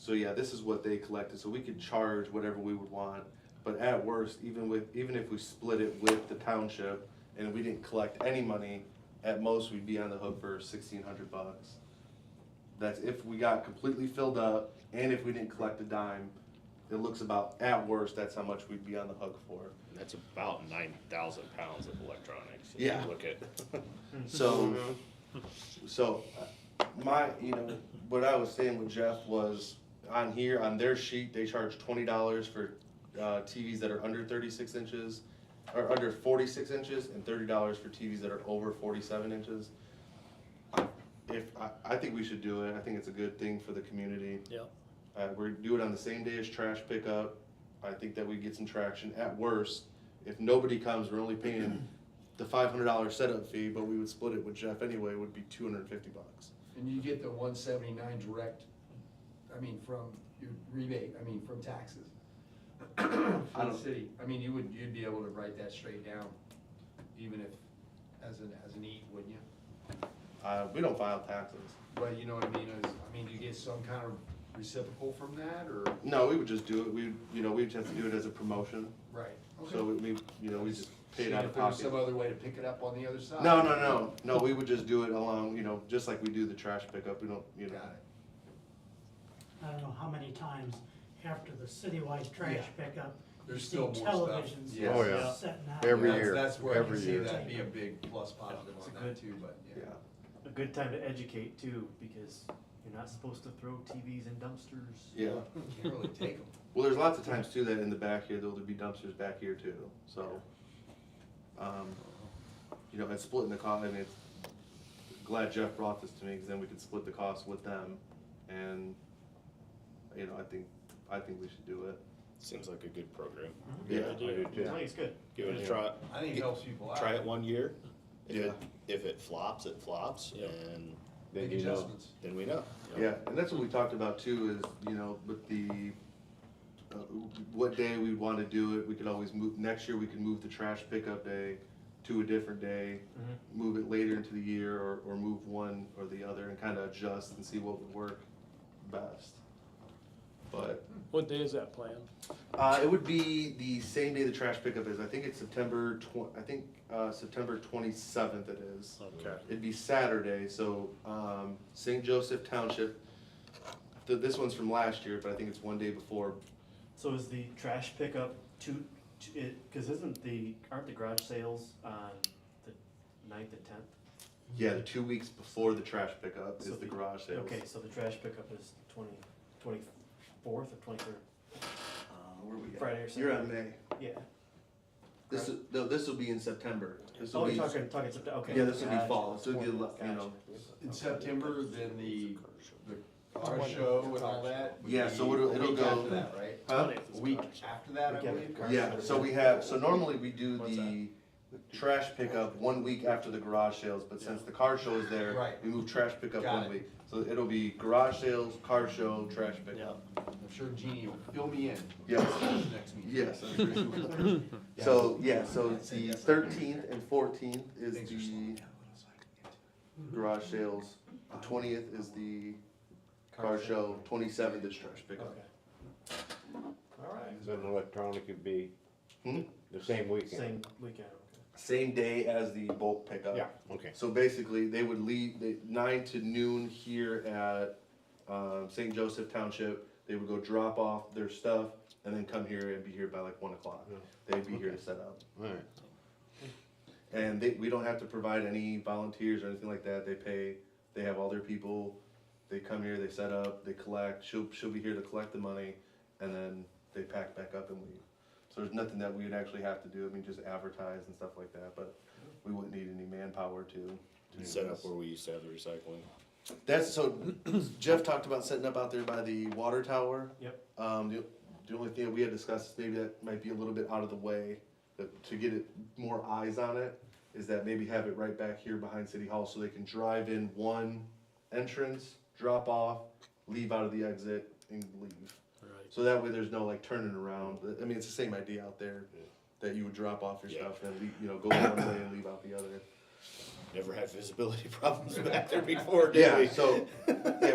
So yeah, this is what they collected, so we could charge whatever we would want, but at worst, even with, even if we split it with the township and we didn't collect any money, at most, we'd be on the hook for sixteen hundred bucks. That's if we got completely filled up and if we didn't collect a dime, it looks about, at worst, that's how much we'd be on the hook for. And that's about nine thousand pounds of electronics. if you Yeah. Look at, So, so uh, my, you know, what I was saying with Jeff was on here, on their sheet, they charge twenty dollars for uh, TVs that are under thirty-six inches or under forty-six inches and thirty dollars for TVs that are over forty-seven inches. I- If, I, I think we should do it. I think it's a good thing for the community. Yep. Uh, we do it on the same day as trash pickup. I think that we get some traction. At worst, if nobody comes, we're only paying the five hundred dollar setup fee, but we would split it with Jeff anyway, would be two hundred and fifty bucks. And you get the one seventy-nine direct, I mean, from your rebate, I mean, from taxes. From the don't- city, I mean, you would, you'd be able to write that straight down, even if, as an, as an eat, wouldn't you? Uh, we don't file taxes. But you know what I mean, is, I mean, do you get some kind of reciprocal from that, or? No, we would just do it, we, you know, we'd have to do it as a promotion, Right. Okay. so we, we, you know, we just pay it See out if of there's pocket. Some other way to pick it up on the other side? No, no, no, no, we would just do it along, you know, just like we do the trash pickup, we don't, you Got know. it. I don't know how many times after the citywide trash pickup, you There's see still more stuff. televisions Yes. Oh, yeah. setting out. Every That's- year, That's where I can every see year. that be a big plus positive It's a on that good- too, but, Yeah, yeah. a good time to educate too, because you're not supposed to throw TVs in dumpsters. yeah, Can't really take them. well, there's lots of times too that in the back here, there'll be dumpsters back here too, so. Um, you know, and splitting the cost, I mean, it's, glad Jeff brought this to me, cause then we could split the cost with them, and, you know, I think, I think we should do it. seems like a good program. Yeah. I do. I think it's good. Give it a try, I think it helps people out. try it one year. If it, Yeah. if it flops, it flops Yeah. and Then Make you know, adjustments. then we know. Yeah, and that's what we talked about too, is, you know, with the, uh, what day we want to do it, we could always move, next year we could move the trash pickup day to a different day, move it later into the year, or, or move one or the other and kind of adjust and see what would work best. But, What day is that planned? uh, it would be the same day the trash pickup is, I think it's September twen- I think, uh, September twenty-seventh it is. Okay. It'd be Saturday, so um, St. Joseph Township. Th- this one's from last year, but I think it's one day before. So is the trash pickup two, two it, cause isn't the, aren't the garage sales on the ninth and tenth? Yeah, the two weeks before the trash pickup So is the the- garage sales. Okay, so the trash pickup is twenty, twenty-fourth or twenty-third, Uh, where we at? Friday or You're on May. yeah. This is, no, this will be in September. This will Oh, be you're talking, talking, September, okay. yeah, this will be Gotcha. fall. This will be you Gotcha. know In September, then the, the car show and all that? would Yeah, so be it'll- a it'll week go- After that, right? huh? A week after that, I Weekend. believe? yeah. So we have so normally we do What's the trash pickup one week after the garage sales, but since the car show is there, Right. we move trash pickup Got one it. week. So it'll be garage sales, car show, trash pickup. I'm sure Jeannie will fill me in. Yes. Next meeting. Yes. I agree. So, yeah, so it's the thirteenth and fourteenth is Things are slowing the down, what else I can get to. garage sales, the twentieth is the car show, twenty-seventh is trash pickup. Okay. Alright, then electronic would be Hmm? the same weekend. same weekend, okay. Same day as the bulk pickup. Yeah, Uh, okay. So basically, they would leave, they, nine to noon here at, um, St. Joseph Township. They would go drop off their stuff and then come here and be here by like one o'clock. Yeah. They'd be here to set up. All right. And they, we don't have to provide any volunteers or anything like that. They pay, they have all their people. They come here, they set up, they collect. She'll, she'll be here to collect the money and then they pack back up and leave. So there's nothing that we would actually have to do. I mean, just advertise and stuff like that, but we wouldn't need any manpower to. to Set do up this. where we used to have the recycling. That's, so Jeff talked about setting up out there by the water tower. Yep. Um, the, the only thing that we had discussed is maybe that might be a little bit out of the way, that to get it, more eyes on it, is that maybe have it right back here behind City Hall so they can drive in one entrance, drop off, leave out of the exit and leave. Right. So that way there's no like turning around. I mean, it's the same idea out there, that you would drop off your stuff and leave, you know, go one way and leave out the other. Never had visibility problems back there before, did we? Yeah, so, yeah,